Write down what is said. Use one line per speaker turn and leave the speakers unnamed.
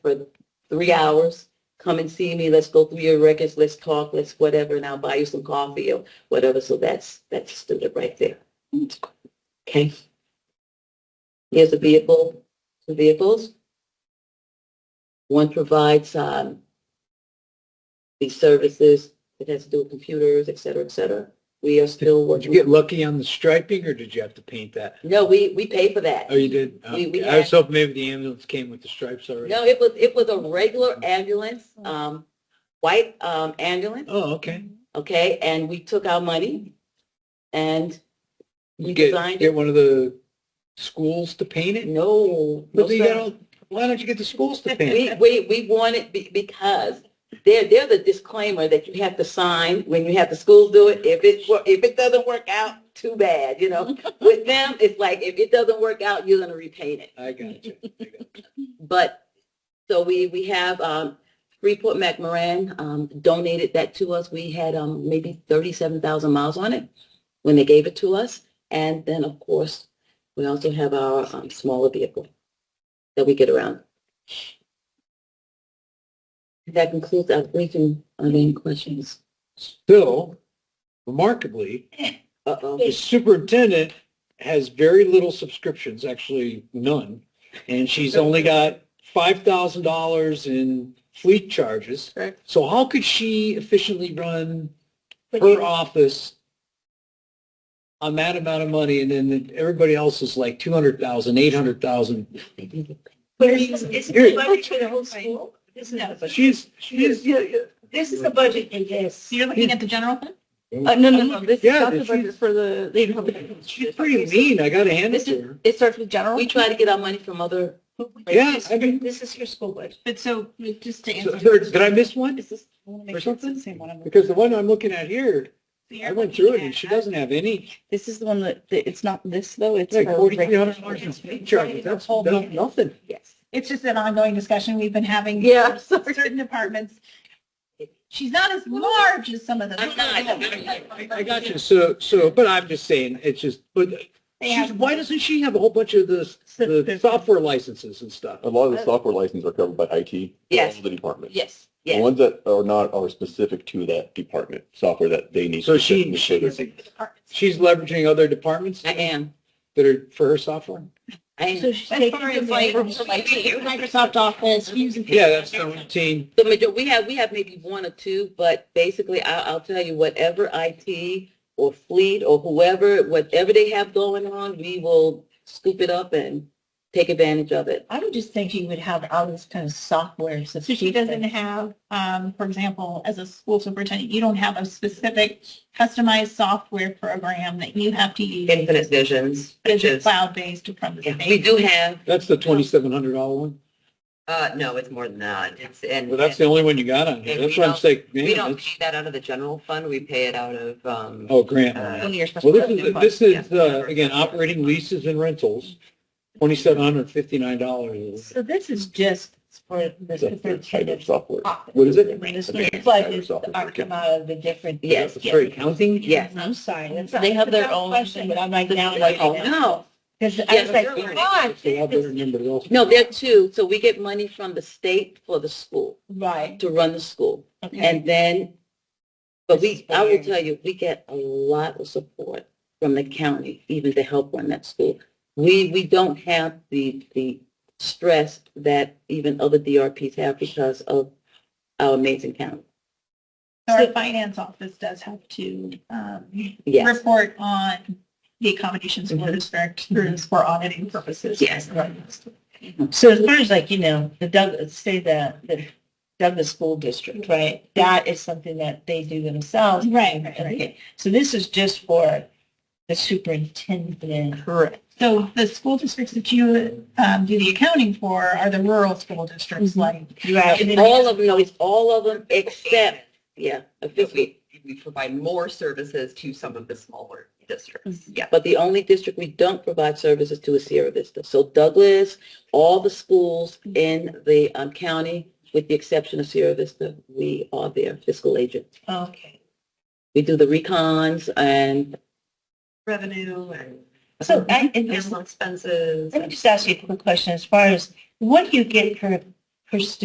for three hours. Come and see me. Let's go through your records. Let's talk. Let's whatever. And I'll buy you some coffee or whatever. So that's, that's student right there. Okay. Here's a vehicle, two vehicles. One provides, um, these services. It has to do with computers, et cetera, et cetera. We are still
Did
working.
you get lucky on the striping or did you have to paint that?
No, we, we pay for that.
Oh, you did?
We- we
Okay. I was hoping maybe the ambulance came with the stripes already.
No, it was, it was a regular ambulance, um, white, um, ambulance,
Oh, okay.
okay? And we took our money and we
You get,
designed it.
get one of the schools to paint it?
No. no,
But you
sir.
got all, why don't you get the schools to paint
We,
it?
we, we want it be- because there, there's a disclaimer that you have to sign when you have the school do it. If it, wor- if it doesn't work out, too bad, you know? With them, it's like, if it doesn't work out, you're gonna repaint it.
I got you. I got you.
But, so we, we have, um, Freeport McMoran, um, donated that to us. We had, um, maybe thirty-seven thousand miles on it when they gave it to us. And then, of course, we also have our, um, smaller vehicle that we get around. That concludes our briefing on any questions.
Still, remarkably,
Uh-oh.
the superintendent has very little subscriptions, actually none. And she's only got five thousand dollars in fleet charges.
Correct.
So how could she efficiently run
But
her
you-
office on that amount of money and then everybody else is like two hundred thousand, eight hundred thousand?
But it's, it's
Here.
the budget for the whole school. This is not a budget.
She's, she's, yeah, yeah.
This is the budget, yes.
You're looking at the general fund?
Uh, no, no, no, this
Yeah,
not the
she's-
budget for the, they don't have-
she's pretty mean. I gotta hand it to her.
It starts with general?
We try to get our money from other,
Yeah, I mean,
This is your school budget.
But so, just to
so-
answer.
so did I miss one?
Is this- I wanna make
Or
sure it's the
something?
same one I'm looking
Because the one I'm looking at here,
at.
I went through it and she doesn't have any.
This is the one that, that- it's not this though, it's.
Like
her
forty-three hundred
regular-
dollars in speed charges, that's that's nothing.
Yes.
It's just an ongoing discussion we've been having.
yeah,
with Certain departments. She's not as large as some of the.
I'm not.
I I got you, so, so, but I'm just saying, it's just, but
They
she's-
have-
why doesn't she have a whole bunch of the, the software licenses and stuff?
A lot of the software licenses are covered by IT.
Yes.
All The department.
yes,
The
yes.
ones that are not are specific to that department, software that they need.
So she,
specifically for
she,
this.
Departments.
she's leveraging other departments
I
that
am,
are for her software?
I am.
So she's
As
taking
far as
the money from
like-
her like Microsoft Office, Fusion.
Yeah, that's the routine.
The major, we have, we have maybe one or two, but basically I, I'll tell you, whatever IT or fleet or whoever, whatever they have going on, we will scoop it up and take advantage of it.
I would just think she would have all this kind of software. So she doesn't have, um, for example, as a school superintendent, you don't have a specific customized software program that you have to use.
Infinite Visions,
Is it cloud-based or from the state?
we do have,
That's the twenty-seven hundred dollar one?
uh, no, it's more than that. It's, and.
Well, that's the only one you got on here.
And
That's
we
what I'm
don't-
saying,
We
man,
don't
that's,
pay that out of the general fund. We pay it out of, um,
oh, grant.
Uh,
One of your special
Well, this is,
funds.
this is, uh, again, operating leases and rentals, twenty-seven hundred fifty-nine dollars.
So this is just for the
That's their kind of
superintendent's
software.
office.
What is it?
That's
The
their kind of
budgets
software.
are come out of the different.
Yes,
That's for accounting?
yes.
I'm sorry. that's-
They have their
that's a
own
question, But I'm like now like,
Oh,
No,
because I
Yes,
was like,
you're right.
God,
So I better
this-
remember those.
no, there are two. So we get money from the state for the school,
Right.
to run the school.
Okay.
And then, but we, I will
Inspiring.
tell you, we get a lot of support from the county, even to help run that school. We, we don't have the, the stress that even other DRPs have because of our amazing county.
So our finance office does have to, um,
Yes,
report on the accommodations for the directors for auditing purposes.
Yes.
Right.
So as far as like, you know, the Douglas, say the, the Douglas School District, right? That is something that they do themselves.
Right, right, right.
Okay, so this is just for the superintendent. Correct.
So the school districts that you, um, do the accounting for are the rural school districts,
Mhm.
like
Right.
And all of them, no, it's all of them except, yeah, officially.
we provide more services to some of the smaller districts. Yeah.
But the only district we don't provide services to is Sierra Vista. So Douglas, all the schools in the um, county, with the exception of Sierra Vista, we are their fiscal agent.
Okay.
We do the recons and
Revenue and
So I, and this-
personal expenses.
let me just ask you a quick question. As far as what do you get per,
her students